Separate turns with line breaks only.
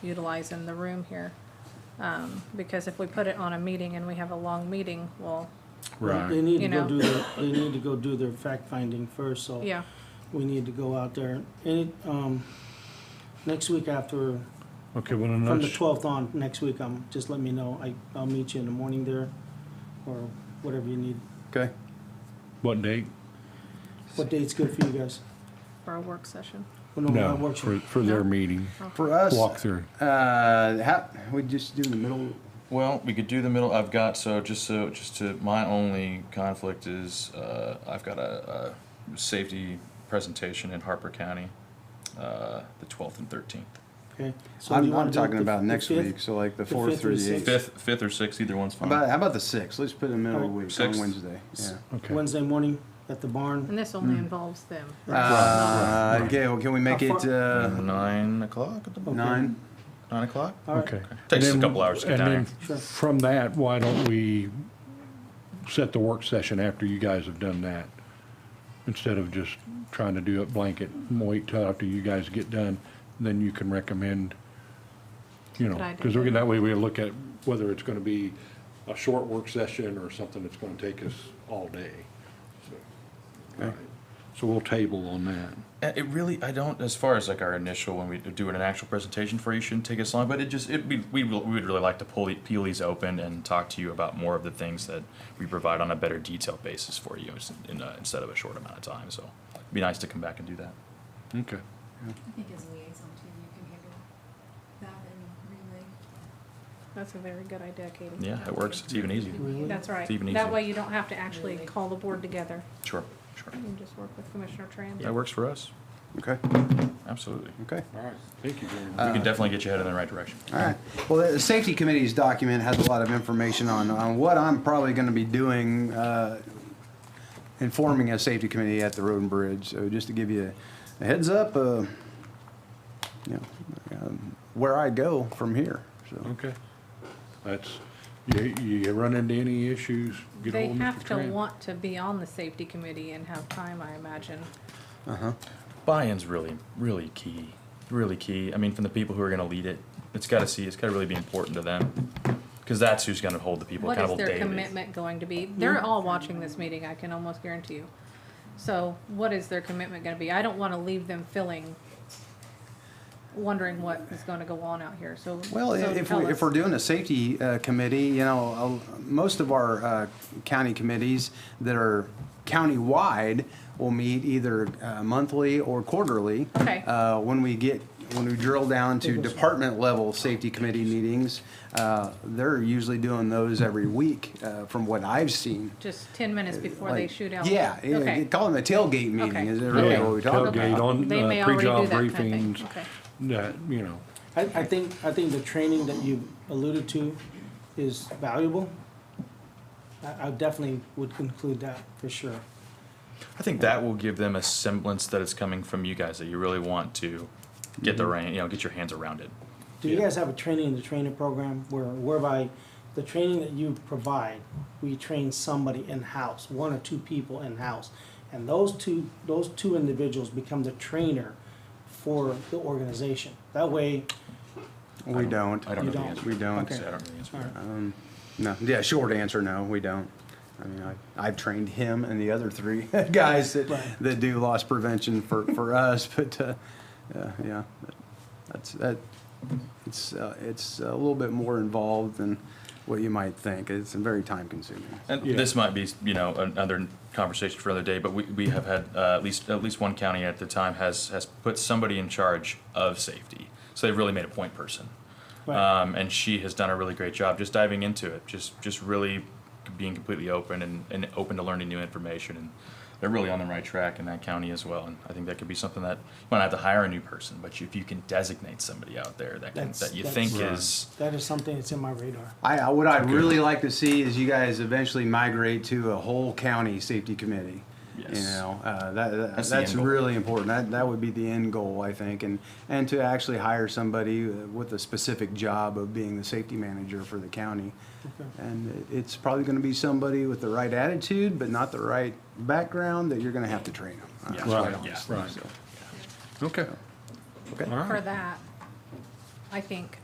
utilize in the room here. Um, because if we put it on a meeting and we have a long meeting, well,
They need to
You
go
know.
do their, they need to go do their fact finding first, so.
yeah,
We need to go out there, and, it, um, next week after,
Okay, well,
from the
another,
twelfth on, next week, um, just let me know, I, I'll meet you in the morning there, or whatever you need,
Okay.
what date?
what date's good for you guys?
for a work session.
Well,
No,
not work-
for, for their meeting,
For us,
walkthrough.
uh, how, we just do the middle.
Well, we could do the middle. I've got so just so just to my only conflict is uh, I've got a, a safety presentation in Harper County, uh, the twelfth and thirteenth,
Okay. So you
I'm,
wanna
I'm
do it
talking
the-
about
the
next
5th?
week, so like the
the
fourth
fifth or
through the eighth.
fifth, fifth or sixth. Either one's
How
fine.
about, how about the sixth? Let's put it in the middle of the week
Sixth.
on Wednesday. Yeah.
Okay.
Wednesday morning at the barn.
And this only involves them.
Uh, Gail, can we make
How
it uh,
nine o'clock. at the-
Okay.
nine?
Nine o'clock.
All right.
Okay.
Takes us a
And then-
couple hours to get
and
down
then
Sure.
From that, why don't we set the work session after you guys have done that? Instead of just trying to do it blanket, wait till after you guys get done, then you can recommend, you
Good
know,
idea.
because we're gonna, that way we look at whether it's gonna be a short work session or something that's gonna take us all day. So, all right. So we'll table on that.
Uh, It really, I don't, as far as like our initial, when we do an actual presentation for you, shouldn't take us long, but it just, it, we, we will- we would really like to pull, the- peel these open and talk to you about more of the things that we provide on a better detailed basis for you ins- in, uh, instead of a short amount of time, so it'd be nice to come back and do that.
Okay.
I think as a liaison too, you can handle that and relay.
That's a very good idea, Katie.
Yeah, it works, it's even easier.
Really?
That's right.
It's even
That
easier.
way you don't have to actually call the board together.
Sure, sure.
You can just work with Commissioner Tran.
That works for us,
Okay.
absolutely.
Okay.
All right. Thank you, Jeremy.
We can definitely get you headed in the right direction.
All right. Well, the safety committee's document has a lot of information on, on what I'm probably going to be doing, uh, informing a safety committee at the road and bridge. So just to give you a heads up, uh, you know, um, where I go from here. So,
Okay. That's, you, you run into any issues, get
They
ahold of Mr.
have to
Tran.
want to be on the safety committee and have time, I imagine.
buy-in's really really key really key i mean from the people who are going to lead it it's got to see it's got to really be important to them because that's who's going to hold the people
What is
accountable
their
daily
commitment going to be? They're all watching this meeting, I can almost guarantee you. So what is their commitment gonna be? I don't wanna leave them feeling, wondering what is gonna go on out here, so.
well, i-
so
if,
tell
we,
us.
if we're doing a safety uh, committee, you know, uh, most of our uh, county committees that are county-wide will meet either uh, monthly or quarterly.
Okay.
Uh, when we get, when we drill down to department-level safety committee meetings, uh, they're usually doing those every week, uh, from what I've seen.
Just ten minutes before they
uh, Like,
shoot out.
Yeah, yeah,
Okay.
call them a tailgate
Okay.
meeting, is it really
Yeah,
what we talk
tailgate
about?
on,
They may
uh,
already do
pre-job
that kind of thing,
briefings,
okay.
that, you know,
I, I think, I think the training that you alluded to is valuable. I, I definitely would conclude that for sure.
i think that will give them a semblance that it's coming from you guys that you really want to get
Mm-hmm.
the rein you know get your hands around it
Do you
Yeah.
guys have a training in the trainer program where whereby the training that you provide, we train somebody in-house, one or two people in-house? And those two, those two individuals become the trainer for the organization. That way,
We don't.
i don't
You
know the
don't.
answer
We don't.
Okay.
i don't know the answer
all right.
No, yeah, short answer, no, we don't. I mean, I, I've trained him and the other three guys that, that do loss prevention for, for us, but, uh, uh, yeah, that's, that, it's, uh, it's a little bit more involved than what you might think. It's very time consuming.
And
Yeah.
this might be, you know, another conversation for another day, but we, we have had, uh, at least, at least one county at the time has, has put somebody in charge of safety. So they've really made a point person.
Right.
Um, and she has done a really great job just diving into it, just, just really being completely open and, and open to learning new information. And they're really on the right track in that county as well. And I think that could be something that, you might not have to hire a new person, but if you can designate somebody out there that can,
That's-
that you
that's-
think
Right.
is,
that is something that's in my radar.
I, I- what I'd really like to see is you guys eventually migrate to a whole county safety committee. You
Yes.
know, uh, that, that,
That's the
that's
end goal.
really important. That, that would be the end goal, I think, and, and to actually hire somebody uh, with a specific job of being the safety manager for the county. And it- it's probably gonna be somebody with the right attitude, but not the right background, that you're gonna have to train them.
Yeah.
right,
yeah.
right. Okay.
Okay.
All
For
right.
that, I think.